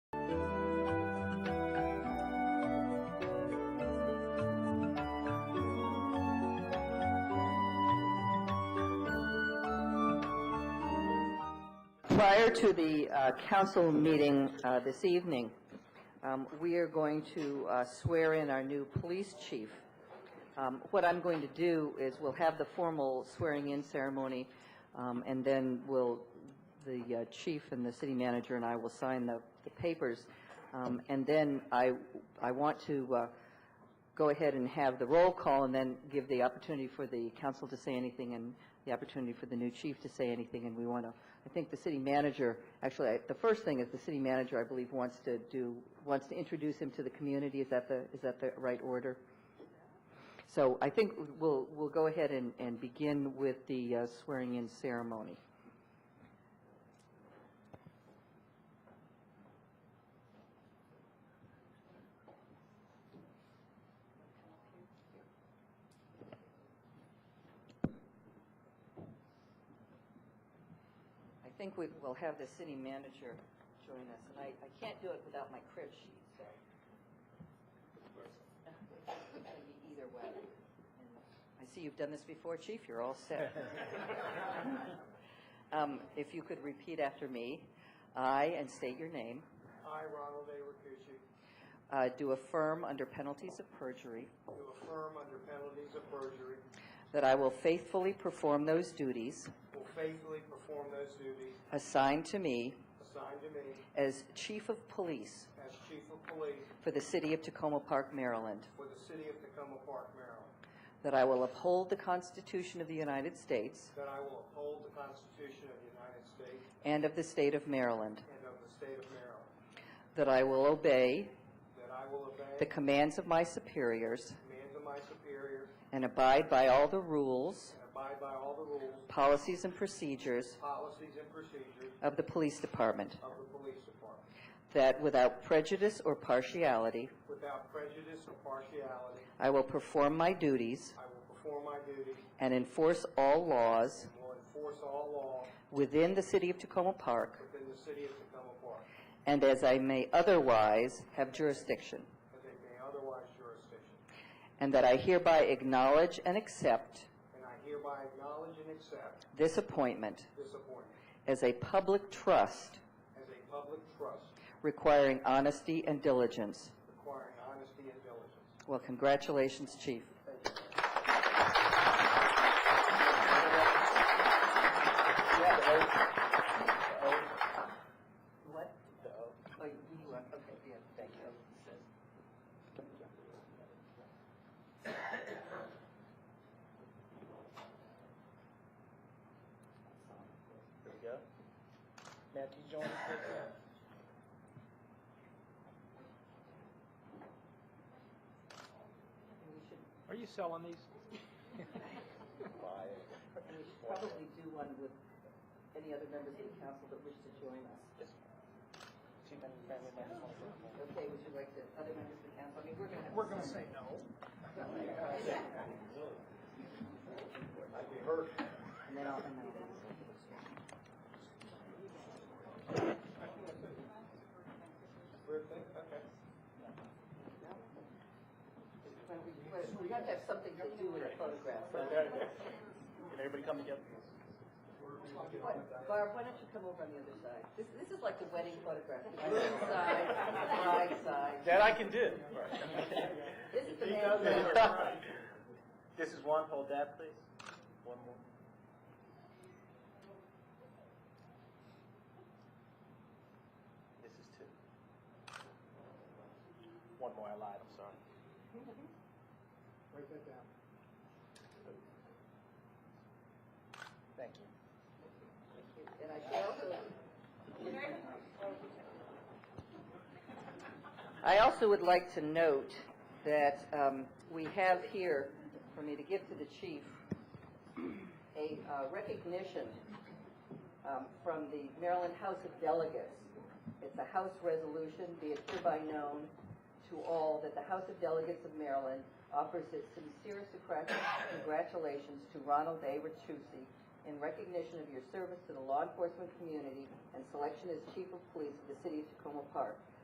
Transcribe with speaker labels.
Speaker 1: Prior to the uh, council meeting uh, this evening, um, we are going to uh, swear in our new police chief. Um, What I'm going to do is we'll have the formal swearing-in ceremony, um, and then we'll, the uh, chief and the city manager and I will sign the the papers. Um, And then I, I want to uh, go ahead and have the roll call and then give the opportunity for the council to say anything and the opportunity for the new chief to say anything. And we want to, I think the city manager, actually, I- the first thing is the city manager, I believe, wants to do, wants to introduce him to the community. Is that the, is that the right order? So I think we'll, we'll go ahead and, and begin with the uh, swearing-in ceremony. I think we will have the city manager join us, and I, I can't do it without my crib sheet, so. It's gonna be either way. I see you've done this before, chief, you're all set. Um, If you could repeat after me, I, and state your name,
Speaker 2: I, Ronald A. Rakucci,
Speaker 1: uh, do affirm under penalties of perjury
Speaker 2: do affirm under penalties of perjury,
Speaker 1: that I will faithfully perform those duties
Speaker 2: will faithfully perform those duties
Speaker 1: assigned to me
Speaker 2: assigned to me
Speaker 1: as chief of police
Speaker 2: as Chief of Police
Speaker 1: for the city of Tacoma Park, Maryland,
Speaker 2: for the City of Tacoma Park, Maryland,
Speaker 1: That I will uphold the Constitution of the United States
Speaker 2: that I will uphold the Constitution of the United States
Speaker 1: and of the State of Maryland.
Speaker 2: and of the State of Maryland,
Speaker 1: That I will obey
Speaker 2: that I will obey
Speaker 1: the commands of my superiors
Speaker 2: the commands of my superiors
Speaker 1: and abide by all the rules,
Speaker 2: and abide by all the rules,
Speaker 1: policies, and procedures
Speaker 2: policies, and procedures
Speaker 1: of the Police Department.
Speaker 2: of the Police Department,
Speaker 1: That without prejudice or partiality,
Speaker 2: without prejudice or partiality,
Speaker 1: I will perform my duties
Speaker 2: I will perform my duties
Speaker 1: and enforce all laws
Speaker 2: and will enforce all law
Speaker 1: within the city of Tacoma Park
Speaker 2: within the City of Tacoma Park.
Speaker 1: and as I may otherwise have jurisdiction.
Speaker 2: as they may otherwise jurisdiction.
Speaker 1: And that I hereby acknowledge and accept
Speaker 2: And I hereby acknowledge and accept
Speaker 1: this appointment
Speaker 2: this appointment
Speaker 1: as a public trust
Speaker 2: as a public trust
Speaker 1: requiring honesty and diligence.
Speaker 2: requiring honesty and diligence.
Speaker 1: Well, congratulations, Chief. What? The O. Oh, you you are, okay, yeah, thank you.
Speaker 2: There we go. Matthew Jones, take that.
Speaker 3: Are you selling these?
Speaker 1: And we should probably do one with any other members of the council that wish to join us. Okay, would you like the other members of the council? I mean, we're going to have.
Speaker 2: We're gonna say no. I'd be hurt.
Speaker 1: And then I'll, and then I'll.
Speaker 2: Weird thing, okay.
Speaker 1: Well, we- well, We have to have something to do with the photograph. so-
Speaker 3: Can everybody come together?
Speaker 1: What- Barb, why don't you come over on the other side? This, this is like the wedding photograph. The groom's side, the bride's side.
Speaker 3: That I can do.
Speaker 1: This is the
Speaker 3: He
Speaker 1: man's
Speaker 3: knows it.
Speaker 1: side.
Speaker 3: This is one, hold that, please. One more. This is two. One more, I lied, I'm sorry.
Speaker 2: Write that down.
Speaker 3: Thank you.
Speaker 1: And I should also. I also would like to note that um, we have here, for me to give to the chief, a uh, recognition um, from the Maryland House of Delegates. It's a House resolution, be it hereby known to all that the House of Delegates of Maryland offers its sincerest congrat- congratulations to Ronald A. Ratusi in recognition of your service to the law enforcement community and selection as Chief of Police of the City of Tacoma Park.